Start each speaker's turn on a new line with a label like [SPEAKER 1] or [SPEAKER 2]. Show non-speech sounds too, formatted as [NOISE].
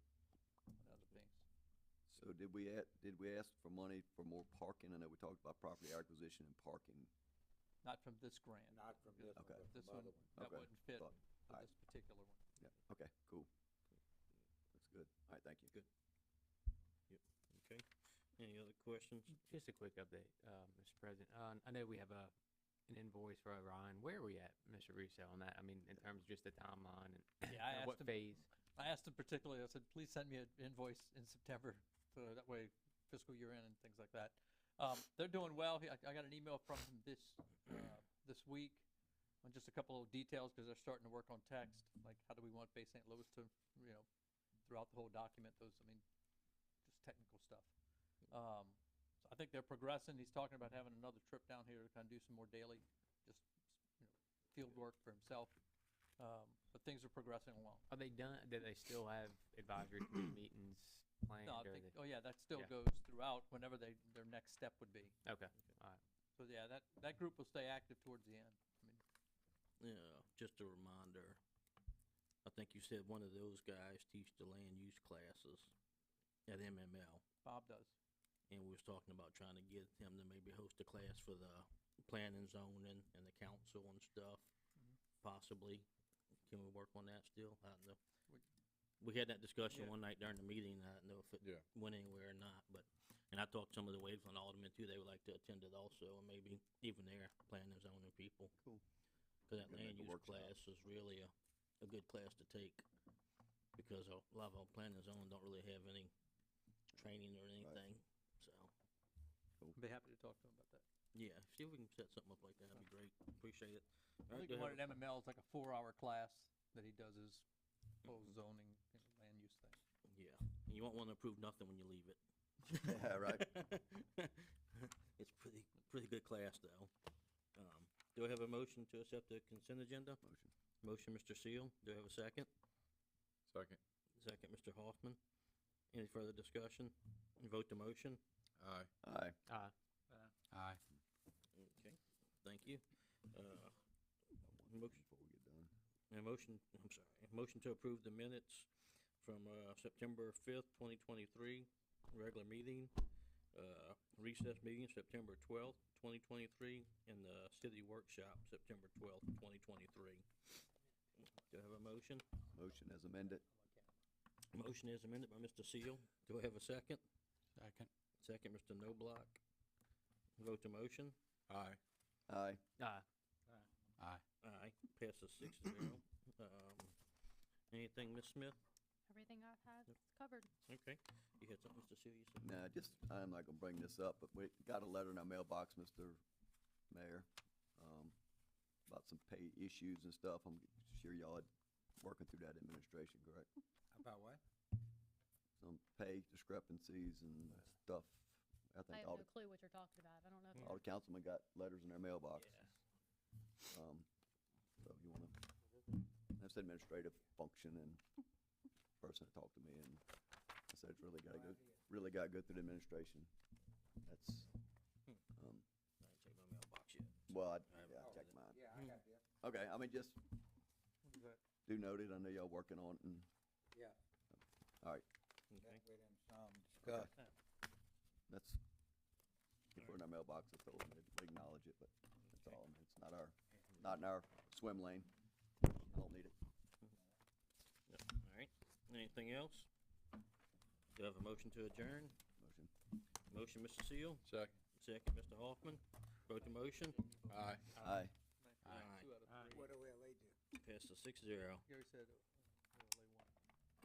[SPEAKER 1] So did we, a- did we ask for money for more parking? I know we talked about property acquisition and parking.
[SPEAKER 2] Not from this grant.
[SPEAKER 3] Not from this one,
[SPEAKER 1] Okay.
[SPEAKER 3] but
[SPEAKER 2] This
[SPEAKER 3] from
[SPEAKER 2] one,
[SPEAKER 3] other one.
[SPEAKER 2] that
[SPEAKER 1] Okay,
[SPEAKER 2] wouldn't fit
[SPEAKER 1] thought-
[SPEAKER 2] for
[SPEAKER 1] alright.
[SPEAKER 2] this particular one.
[SPEAKER 1] Yeah, okay, cool. That's good. All right, thank you.
[SPEAKER 4] Okay, any other questions?
[SPEAKER 5] Just a quick update, uh, Mr. President. Uh, I know we have a, an invoice for Orion. Where are we at, Mr. Russo, on that? I mean, in terms of just the timeline and
[SPEAKER 2] Yeah, I
[SPEAKER 5] and
[SPEAKER 2] asked
[SPEAKER 5] what
[SPEAKER 2] him,
[SPEAKER 5] phase?
[SPEAKER 2] I asked him particularly, I said, please send me an invoice in September, so that way fiscal year end and things like that. Um, they're doing well. He- I, I got an email from him this, uh, this week on just a couple of details, because they're starting to work on text, like how do we want Bay St. Louis to, you know, throughout the whole document, those, I mean, just technical stuff. Um, so I think they're progressing. He's talking about having another trip down here to kind of do some more daily, just, you know, field work for himself. Um, but things are progressing along.
[SPEAKER 5] Are they done, do they still have advisory committee meetings planned
[SPEAKER 2] No, I
[SPEAKER 5] during
[SPEAKER 2] think, oh yeah, that still
[SPEAKER 5] yeah.
[SPEAKER 2] goes throughout whenever they, their next step would be.
[SPEAKER 5] the? Okay, all right.
[SPEAKER 2] So yeah, that, that group will stay active towards the end. I mean,
[SPEAKER 4] Yeah, just a reminder. I think you said one of those guys teach the land use classes at MML,
[SPEAKER 2] Bob does.
[SPEAKER 4] and we was talking about trying to get him to maybe host a class for the planning zoning and the council and stuff,
[SPEAKER 2] Mm-hmm.
[SPEAKER 4] possibly. Can we work on that still? I don't know.
[SPEAKER 2] We-
[SPEAKER 4] We had that discussion
[SPEAKER 2] Yeah.
[SPEAKER 4] one night during the meeting, I don't know if it
[SPEAKER 3] Yeah.
[SPEAKER 4] went anywhere or not, but, and I talked to some of the Waveland aldermen too, they would like to attend it also, and maybe even their planning and zoning people.
[SPEAKER 1] Cool.
[SPEAKER 4] Cause that
[SPEAKER 1] Could
[SPEAKER 4] land
[SPEAKER 1] make a
[SPEAKER 4] use
[SPEAKER 1] workshop.
[SPEAKER 4] class is really a, a good class to take, because a lot of our planning and zoning don't really have any training or anything, so,
[SPEAKER 2] I'd be happy to talk to him about that.
[SPEAKER 4] yeah, see if we can set something up like that, that'd be great, appreciate it.
[SPEAKER 2] I
[SPEAKER 4] Alright,
[SPEAKER 2] think the
[SPEAKER 4] do
[SPEAKER 2] one
[SPEAKER 4] I have
[SPEAKER 2] at MML is like a four-hour class that he does his whole zoning and land use thing.
[SPEAKER 4] a- Yeah, and you won't wanna approve nothing when you leave it.
[SPEAKER 1] [LAUGHS] Yeah, right.
[SPEAKER 4] [LAUGHS] It's pretty, pretty good class though. Um, do I have a motion to accept the consent agenda?
[SPEAKER 1] Motion.
[SPEAKER 4] Motion, Mr. Seal, do I have a second?
[SPEAKER 6] Second.
[SPEAKER 4] Second, Mr. Hoffman. Any further discussion? Vote the motion?
[SPEAKER 6] Aye.
[SPEAKER 1] Aye.
[SPEAKER 5] Uh,
[SPEAKER 6] Aye.
[SPEAKER 4] Okay. Thank you. Uh,
[SPEAKER 1] One
[SPEAKER 4] Motion.
[SPEAKER 1] Before we get done.
[SPEAKER 4] a motion, I'm sorry, a motion to approve the minutes from, uh, September fifth, twenty twenty-three, regular meeting, uh, recess meeting, September twelfth, twenty twenty-three, and the city workshop, September twelfth, twenty twenty-three. Do I have a motion?
[SPEAKER 1] Motion as amended.
[SPEAKER 4] Motion is amended by Mr. Seal. Do I have a second?
[SPEAKER 6] Second.
[SPEAKER 4] Second, Mr. No Block. Vote to motion.
[SPEAKER 6] Aye.
[SPEAKER 1] Aye.
[SPEAKER 5] uh,
[SPEAKER 6] Aye.
[SPEAKER 4] Aye, passes six to
[SPEAKER 1] [CLEARS THROAT]
[SPEAKER 4] zero. Um, anything, Ms. Smith?
[SPEAKER 7] Everything I've had is covered.
[SPEAKER 4] Okay. You had something, Mr. Seal, you said?
[SPEAKER 1] Nah, just, I'm not gonna bring this up, but we got a letter in our mailbox, Mr. Mayor, um, about some pay issues and stuff. I'm sure y'all had working through that administration, correct?
[SPEAKER 3] About what?
[SPEAKER 1] Some pay discrepancies and stuff. I
[SPEAKER 7] I
[SPEAKER 1] think
[SPEAKER 7] have
[SPEAKER 1] all
[SPEAKER 7] no
[SPEAKER 1] the,
[SPEAKER 7] clue what you're talking about. I don't know if
[SPEAKER 1] all
[SPEAKER 7] you're
[SPEAKER 1] the councilmen got letters in their mailbox.
[SPEAKER 4] Yeah.
[SPEAKER 1] Um, so you wanna, that's administrative function and person that talked to me and I said, it's really gotta go, really gotta go through the administration. That's, um,
[SPEAKER 4] I ain't checked my mailbox yet.
[SPEAKER 1] well, I,
[SPEAKER 4] I haven't
[SPEAKER 1] yeah, I
[SPEAKER 4] called
[SPEAKER 1] checked
[SPEAKER 4] it.
[SPEAKER 1] mine.
[SPEAKER 3] Yeah, I got that.
[SPEAKER 1] Okay, I mean, just do note it. I know y'all working on it and,
[SPEAKER 3] Yeah,
[SPEAKER 1] all right,
[SPEAKER 4] Okay.
[SPEAKER 3] that way then some discuss.
[SPEAKER 1] that's, if we're in our mailbox, I told them to acknowledge it, but that's all. It's not our, not in our swim lane. I don't need it.
[SPEAKER 4] Yep, All right. Anything else? Do I have a motion to adjourn?
[SPEAKER 1] Motion.
[SPEAKER 4] Motion, Mr. Seal.
[SPEAKER 6] Second.
[SPEAKER 4] Second, Mr. Hoffman. Vote to motion.
[SPEAKER 6] Aye.
[SPEAKER 1] Aye.
[SPEAKER 4] Aye.
[SPEAKER 2] Two out of three.
[SPEAKER 3] What do we, they do?
[SPEAKER 4] Passes six zero.
[SPEAKER 2] Gary said, uh,